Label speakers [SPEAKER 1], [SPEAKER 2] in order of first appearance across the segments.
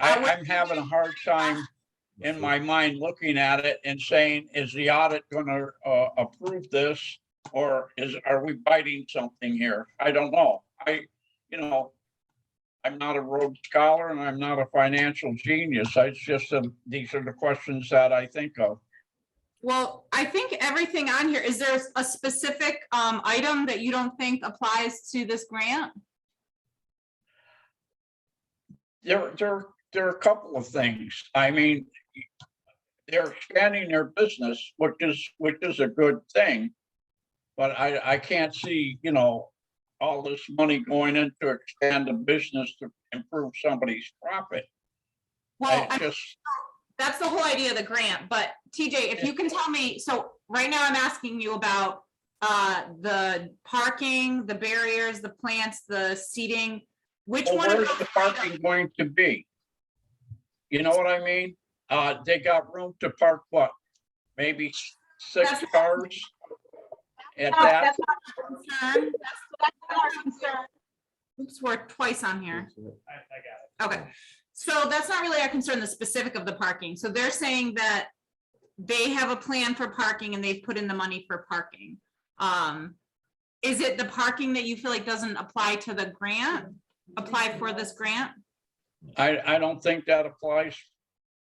[SPEAKER 1] I, I'm having a hard time in my mind looking at it and saying, is the audit gonna, uh, approve this? Or is, are we biting something here? I don't know. I, you know, I'm not a Rhodes scholar and I'm not a financial genius. I- It's just, um, these are the questions that I think of.
[SPEAKER 2] Well, I think everything on here, is there a specific um item that you don't think applies to this grant?
[SPEAKER 1] There, there, there are a couple of things. I mean, they're expanding their business, which is, which is a good thing. But I, I can't see, you know, all this money going in to expand the business to improve somebody's profit.
[SPEAKER 2] Well,
[SPEAKER 1] I
[SPEAKER 2] I-
[SPEAKER 1] just,
[SPEAKER 2] that's the whole idea of the grant, but TJ, if you can tell me, so right now I'm asking you about uh the parking, the barriers, the plants, the seating, which
[SPEAKER 1] well,
[SPEAKER 2] one of
[SPEAKER 1] where's
[SPEAKER 2] those?
[SPEAKER 1] Oh, the parking going to be? You know what I mean? Uh, they got room to park what? Maybe s- six
[SPEAKER 2] That's- Oh,
[SPEAKER 1] cars? At
[SPEAKER 3] No,
[SPEAKER 1] that?
[SPEAKER 3] That's not our concern. That's- that's not our concern.
[SPEAKER 2] Oops, we're twice on here.
[SPEAKER 4] I, I got it.
[SPEAKER 2] Okay, so that's not really our concern, the specific of the parking. So they're saying that they have a plan for parking and they've put in the money for parking. Um, is it the parking that you feel like doesn't apply to the grant? Apply for this grant?
[SPEAKER 1] I, I don't think that applies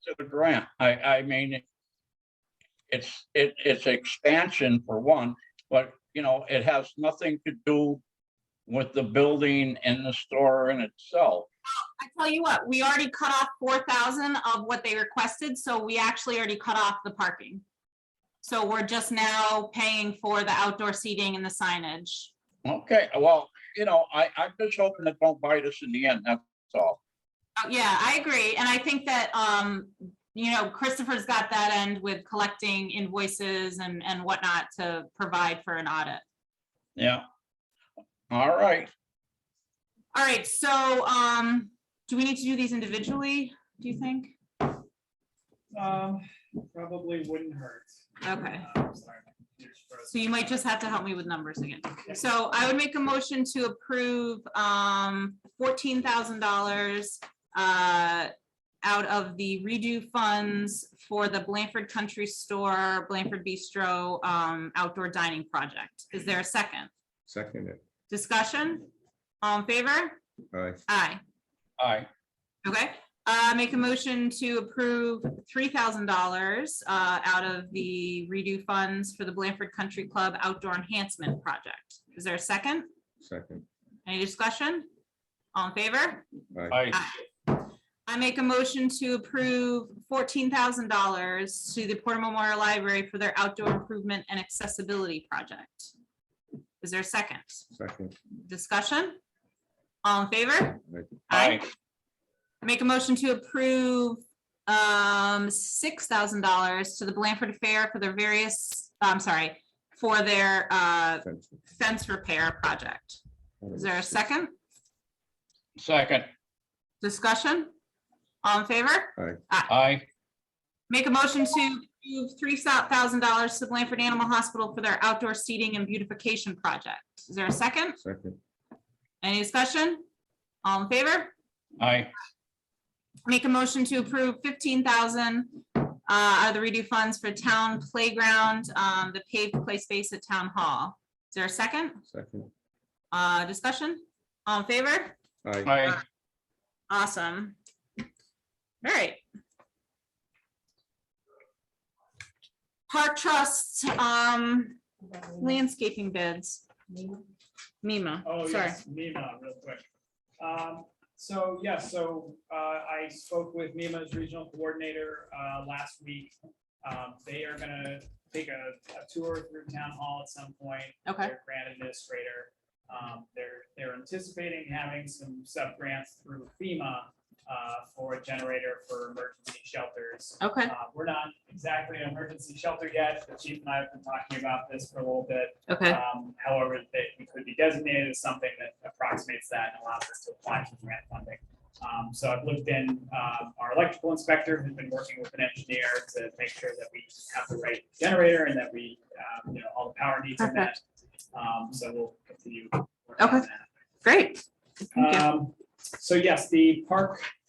[SPEAKER 1] to the grant. I, I mean, it's, it, it's expansion for one, but, you know, it has nothing to do with the building and the store in itself.
[SPEAKER 2] I tell you what, we already cut off four thousand of what they requested, so we actually already cut off the parking. So we're just now paying for the outdoor seating and the signage.
[SPEAKER 1] Okay, well, you know, I, I'm just hoping it don't bite us in the end, that's all.
[SPEAKER 2] Oh, Yeah, I agree. And I think that, um, you know, Christopher's got that end with collecting invoices and, and whatnot to provide for an audit.
[SPEAKER 1] Yeah. All right,
[SPEAKER 2] All right, so, um, do we need to do these individually, do you think? Uh,
[SPEAKER 4] Um, probably wouldn't hurt.
[SPEAKER 2] Okay,
[SPEAKER 4] Um, sorry, my computer's frozen.
[SPEAKER 2] so you might just have to help me with numbers again. So I would make a motion to approve, um, fourteen thousand dollars, uh, out of the redo funds for the Blanford Country Store, Blanford Bistro, um, outdoor dining project. Is there a second?
[SPEAKER 5] Second it.
[SPEAKER 2] Discussion? All in favor?
[SPEAKER 5] All right.
[SPEAKER 2] Aye.
[SPEAKER 1] all right,
[SPEAKER 2] Okay, uh, make a motion to approve three thousand dollars, uh, out of the redo funds for the Blanford Country Club Outdoor Enhancement Project. Is there a second?
[SPEAKER 5] Second.
[SPEAKER 2] Any discussion? All in favor?
[SPEAKER 5] All right.
[SPEAKER 1] I,
[SPEAKER 2] I make a motion to approve fourteen thousand dollars to the Porter Memorial Library for their outdoor improvement and accessibility project. Is there a second?
[SPEAKER 5] Second.
[SPEAKER 2] Discussion? All in favor?
[SPEAKER 1] I,
[SPEAKER 5] Aye.
[SPEAKER 2] Make a motion to approve um six thousand dollars to the Blanford Fair for their various, I'm sorry, for their uh
[SPEAKER 5] Second.
[SPEAKER 2] fence repair project. Is there a second
[SPEAKER 1] second,
[SPEAKER 2] discussion? All in favor?
[SPEAKER 1] I,
[SPEAKER 2] Make a motion to approve three thousand dollars to Blanford Animal Hospital for their outdoor seating and beautification project. Is there a second?
[SPEAKER 5] Second.
[SPEAKER 2] Any discussion? All in favor?
[SPEAKER 1] I,
[SPEAKER 2] Make a motion to approve fifteen thousand uh, out of the redo funds for town playground, um, the paved play space at town hall. Is there a second?
[SPEAKER 5] Second.
[SPEAKER 2] Uh, discussion? All in favor?
[SPEAKER 5] Aye.
[SPEAKER 1] I,
[SPEAKER 2] Awesome. All right. Park Trust, um, landscaping bids. Mima,
[SPEAKER 4] Oh,
[SPEAKER 2] sorry.
[SPEAKER 4] yes, Mima, real quick. Um, So, yeah, so uh, I spoke with Mima's regional coordinator uh, last week. Um, They are gonna take a a tour through town hall at some point.
[SPEAKER 2] Okay,
[SPEAKER 4] Their grant administrator. Um, They're, they're anticipating having some sub-grants through FEMA uh, for a generator for emergency shelters.
[SPEAKER 2] okay,
[SPEAKER 4] Uh, We're not exactly an emergency shelter yet. The chief and I have been talking about this for a little bit.
[SPEAKER 2] okay,
[SPEAKER 4] Um, However, that we could be designated as something that approximates that and allows us to apply for grant funding. Um, So I've looked in, um, our electrical inspector has been working with an engineer to make sure that we have the right generator and that we, um, you know, all the power needs are met. Um, So we'll continue. working on
[SPEAKER 2] Okay.
[SPEAKER 4] that.
[SPEAKER 2] great. Thank you.
[SPEAKER 4] Um, So yes, the park